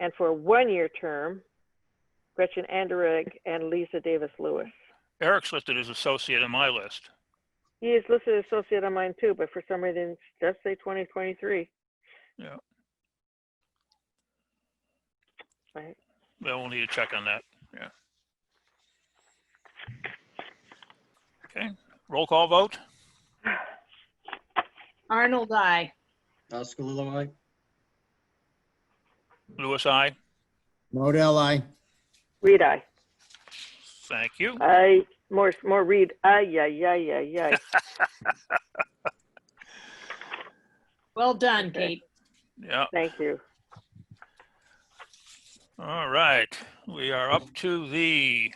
and for a one-year term, Gretchen Anderegg and Lisa Davis Lewis. Eric's listed as associate in my list. He is listed as associate on mine too, but for some reason, it does say 2023. Yeah. Right. Well, we'll need to check on that. Yeah. Okay, roll call vote. Arnold, I. Oskalilua, aye. Lewis, I. Modell, I. Reed, I. Thank you. I, more, more Reed, aye, yeah, yeah, yeah, yeah. Well done, Okay. Kate. Yeah, Thank you. all right. We are up to the,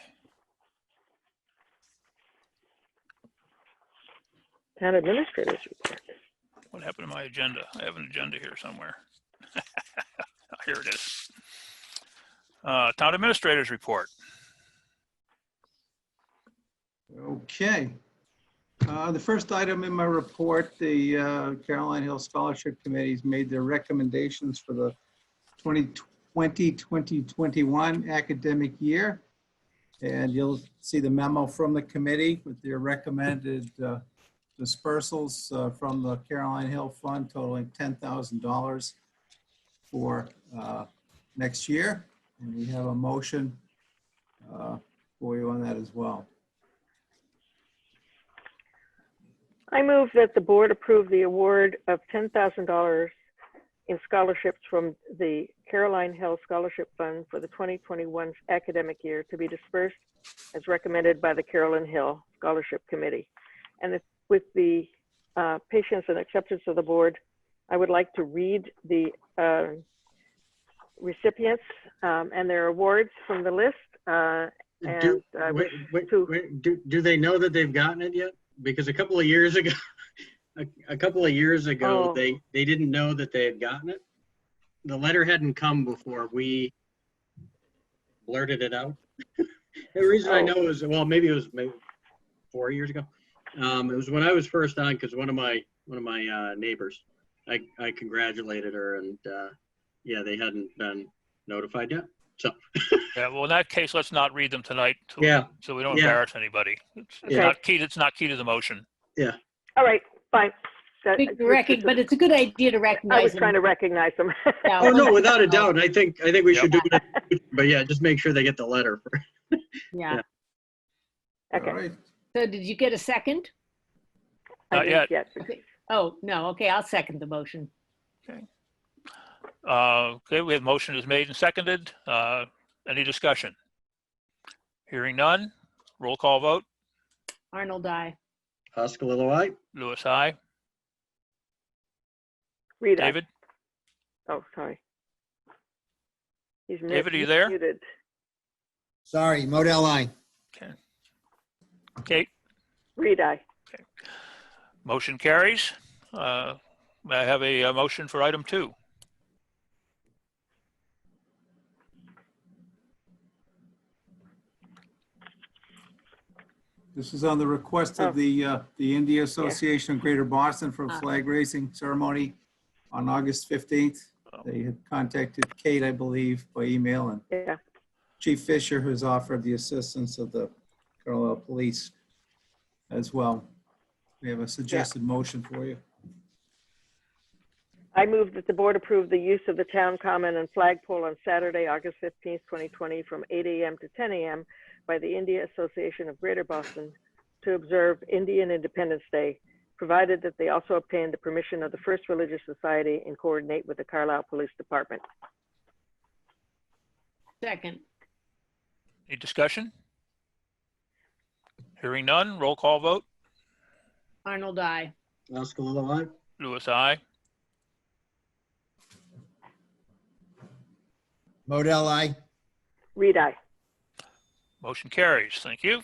Town administrators report. what happened to my agenda? I have an agenda here somewhere. Here it is. Uh, Town Administrators Report. Okay. Uh, The first item in my report, the uh, Caroline Hill Scholarship Committee's made their recommendations for the 2020-2021 academic year. And you'll see the memo from the committee with their recommended uh, dispersals uh, from the Caroline Hill Fund totaling $10,000 for uh, next year. And we have a motion uh, for you on that as well. I move that the board approve the award of $10,000 in scholarships from the Caroline Hill Scholarship Fund for the 2021 academic year to be dispersed as recommended by the Caroline Hill Scholarship Committee. And if- with the uh, patience and acceptance of the board, I would like to read the uh, recipients um, and their awards from the list. uh, Do, And I wait, wish wait, to- wait, do, do they know that they've gotten it yet? Because a couple of years ago, a, a couple of years ago, Oh. they, they didn't know that they had gotten it. The letter hadn't come before we blurted it out. The reason I Oh. know is, well, maybe it was maybe four years ago. Um, it was when I was first on, because one of my, one of my, uh, neighbors, I, I congratulated her and, uh, yeah, they hadn't been notified yet. Yeah, well, in that case, let's not read them tonight. till- Yeah, So we don't Yeah. embarrass anybody. It's it's Yeah. not key, it's not key to the motion. All right, fine. That- Big recog- But it's a good idea to I was recognize trying him. to recognize them. Yeah. Oh, no, without a doubt. I think, I think we Yep. should do it. But yeah, just make sure they get the letter. Yeah. Okay. All right. So did you get a second? I Not didn't yet. Oh, no. Okay, I'll second the motion. Uh, Okay, we have motion is made and seconded. Uh, Any discussion? Hearing none, roll call vote. Arnold, I. Oskalilua, Lewis, I. Rita. David? Oh, sorry. He's mu- David, are you he's there? Muted. Sorry, Modell, I. Kate? Reed, aye. Motion carries. Uh, May I have a uh, motion for item two? This is on the request Oh. of the, uh, the India Association of Greater Boston for a Ah. flag raising ceremony on August 15th. They had contacted Kate, I believe, by email, and Yeah. Chief Fisher, who's offered the assistance of the Carlisle Police as well. We have a suggested motion for you. I move that the board approve the use of the town common and flagpole on Saturday, August 15th, 2020, from 8 a.m. to 10 a.m. by the India Association of Greater Boston to observe Indian Independence Day, provided that they also obtain the permission of the First Religious Society and coordinate with the Carlisle Police Department. Second. Any discussion? Hearing none, roll call vote. Arnold, I. Oskalilua, Lewis, I. Modell, I. Reed, aye. Motion carries. Thank you.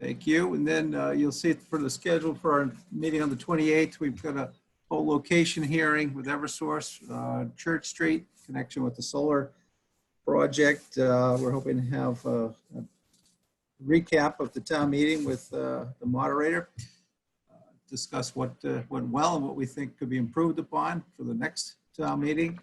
Thank you. And then uh, you'll see it for the schedule for our meeting on the 28th. We've got a whole location hearing with Eversource, uh, Church Street, connection with the solar project. Uh, We're hoping to have uh, a recap of the town meeting with uh, the moderator, uh, discuss what uh, went well and what we think could be improved upon for the next town meeting.